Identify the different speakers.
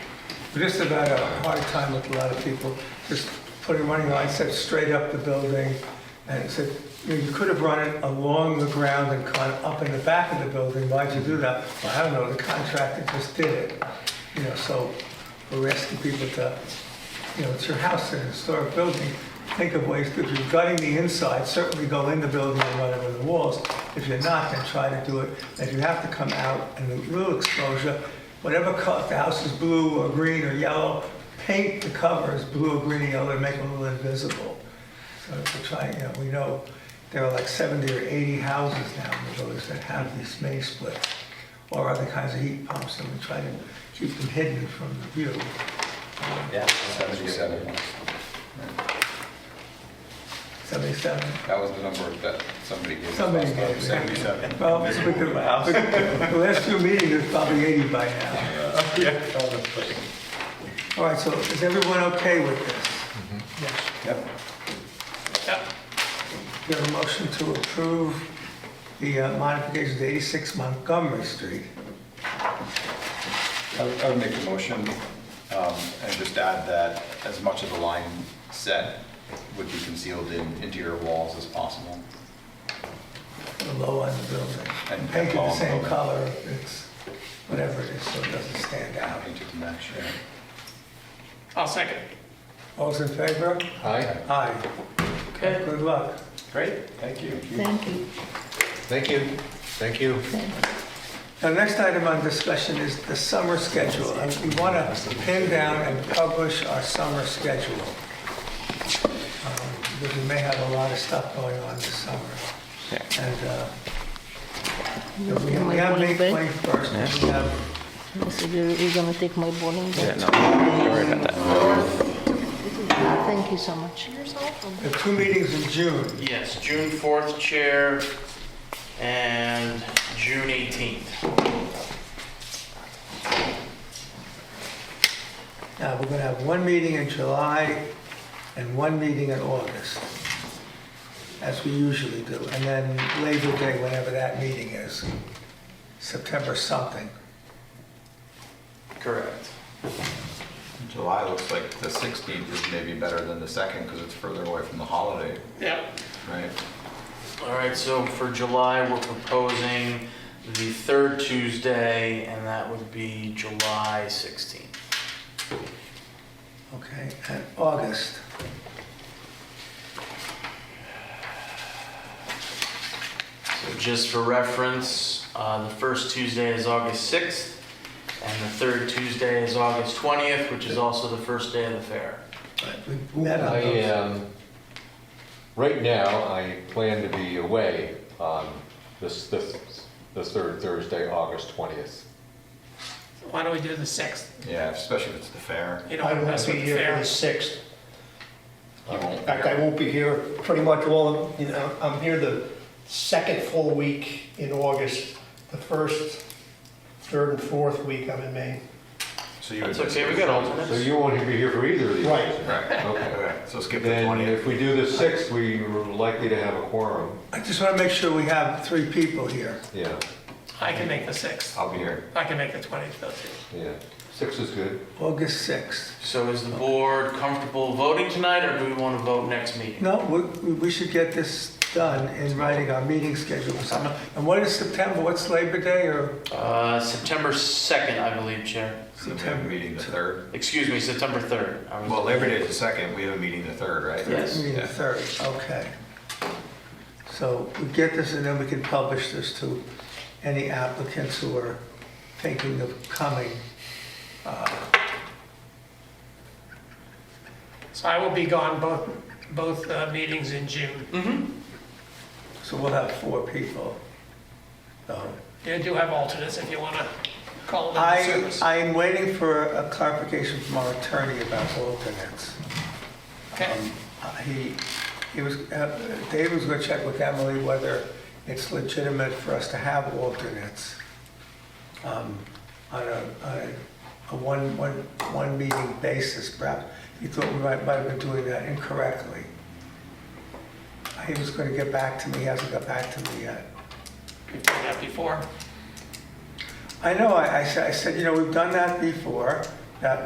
Speaker 1: We just about had a hard time with a lot of people, just putting running lines set straight up the building. And said, you know, you could have run it along the ground and kind of up in the back of the building, why'd you do that? Well, I don't know, the contractor just did it. You know, so we're asking people to, you know, it's your house, it's a historic building. Think of ways, if you're gutting the inside, certainly go in the building and run over the walls. If you're not, then try to do it. If you have to come out and a little exposure, whatever color, if the house is blue or green or yellow, paint the covers blue or green or yellow, and make them a little invisible. So we're trying, you know, we know there are like 70 or 80 houses now in the village that have these May splits or other kinds of heat pumps, and we try to keep them hidden from the view.
Speaker 2: Yeah.
Speaker 3: 77.
Speaker 1: 77,
Speaker 3: That was the number that somebody gave us.
Speaker 1: somebody
Speaker 3: last
Speaker 1: gave
Speaker 3: time,
Speaker 1: it.
Speaker 3: 77.
Speaker 1: Well, we could- the last few meetings, it's probably 80 by now. All right, so is everyone okay with this? Yes.
Speaker 2: Yep.
Speaker 1: We have a motion to approve the uh, modifications to 86 Montgomery Street.
Speaker 3: I would- I would make the motion um, and just add that as much of the line set would be concealed in interior walls as possible.
Speaker 1: the low end of the building.
Speaker 3: And
Speaker 1: Paint it the
Speaker 3: low on the
Speaker 1: same
Speaker 3: building.
Speaker 1: color, it's whatever it is, so it doesn't stand out.
Speaker 3: Painted to match, yeah.
Speaker 4: I'll second.
Speaker 1: All's in favor?
Speaker 5: Hi,
Speaker 1: Aye.
Speaker 4: Okay.
Speaker 1: Good luck.
Speaker 3: Great, thank you.
Speaker 6: Thank you.
Speaker 5: thank you, thank you.
Speaker 1: Now, next item on discussion is the summer schedule. And We want to pin down and publish our summer schedule. Um, Because we may have a lot of stuff going on this summer. And uh, we
Speaker 6: my
Speaker 1: we have May
Speaker 6: bowling bag.
Speaker 1: 21st, and we have
Speaker 6: Mr. Jerry, you're gonna take my bowling ball?
Speaker 2: Yeah, no, don't worry about that.
Speaker 6: Thank you so much.
Speaker 1: we have two meetings in June.
Speaker 4: Yes, June 4th chair and June 18th.
Speaker 1: Now, we're gonna have one meeting in July and one meeting in August, as we usually do, and then Labor Day, whenever that meeting is, September something.
Speaker 4: Correct.
Speaker 3: July looks like the 16th is maybe better than the 2nd because it's further away from the holiday,
Speaker 4: Yep.
Speaker 3: right?
Speaker 4: All right, so for July, we're proposing the third Tuesday, and that would be July 16th.
Speaker 1: Okay, and August,
Speaker 4: So just for reference, uh, the first Tuesday is August 6th, and the third Tuesday is August 20th, which is also the first day of the fair.
Speaker 1: we met on
Speaker 3: Oh,
Speaker 5: I,
Speaker 1: those.
Speaker 5: um, right now, I plan to be away on this, this, the third Thursday, August 20th.
Speaker 7: Why don't we do the sixth?
Speaker 3: Yeah, especially if it's the fair.
Speaker 7: You
Speaker 8: I
Speaker 7: don't
Speaker 8: won't
Speaker 7: mess
Speaker 8: be
Speaker 7: with the
Speaker 8: here for the
Speaker 7: fair.
Speaker 8: 6th.
Speaker 3: You won't-
Speaker 8: In fact, I won't be here pretty much all, of you know, I'm here the second full week in August, the first, third and fourth week I'm in Maine.
Speaker 3: So you would
Speaker 4: That's
Speaker 3: miss
Speaker 4: okay,
Speaker 3: the
Speaker 4: we got
Speaker 3: first-
Speaker 4: alternates.
Speaker 5: So you won't be here for either of these?
Speaker 8: Right.
Speaker 3: Right,
Speaker 5: Okay.
Speaker 3: okay, so skip the
Speaker 5: Then
Speaker 3: 20th.
Speaker 5: if we do the 6th, we we're likely to have a quorum,
Speaker 1: I just wanna make sure we have three people here.
Speaker 5: yeah,
Speaker 7: I can make the sixth.
Speaker 3: I'll be here.
Speaker 7: I can make the twentieth though too.
Speaker 5: yeah. 6 is good.
Speaker 1: August 6th.
Speaker 4: So is the board comfortable voting tonight, or do we want to vote next meeting?
Speaker 1: No, we, we should get this done in writing our meeting schedule for summer. And what is September, what's Labor Day or
Speaker 4: Uh, September 2nd, I believe, Chair.
Speaker 3: So we have a meeting the 3rd.
Speaker 4: Excuse me, September 3rd. I was-
Speaker 3: Well, Labor Day is the 2nd, we have a meeting the 3rd, right?
Speaker 4: Yes.
Speaker 1: Meeting the
Speaker 3: Yeah.
Speaker 1: third, okay. So we get this and then we can publish this to any applicants who are thinking of coming.
Speaker 7: So I will be gone both, both uh, meetings in June.
Speaker 1: So we'll have four people. So
Speaker 7: You do have alternates if you want to call them to
Speaker 1: I,
Speaker 7: service.
Speaker 1: I am waiting for a clarification from our attorney about alternates.
Speaker 7: Okay.
Speaker 1: Um, He, he was, uh, Dave was gonna check with Emily whether it's legitimate for us to have alternates um, on a, on a- a one, one, one meeting basis, perhaps. He thought we might, might have been doing that incorrectly. He was gonna get back to me, he hasn't got back to me yet.
Speaker 7: We've done that before.
Speaker 1: I know, I, I said, I said, you know, we've done that before,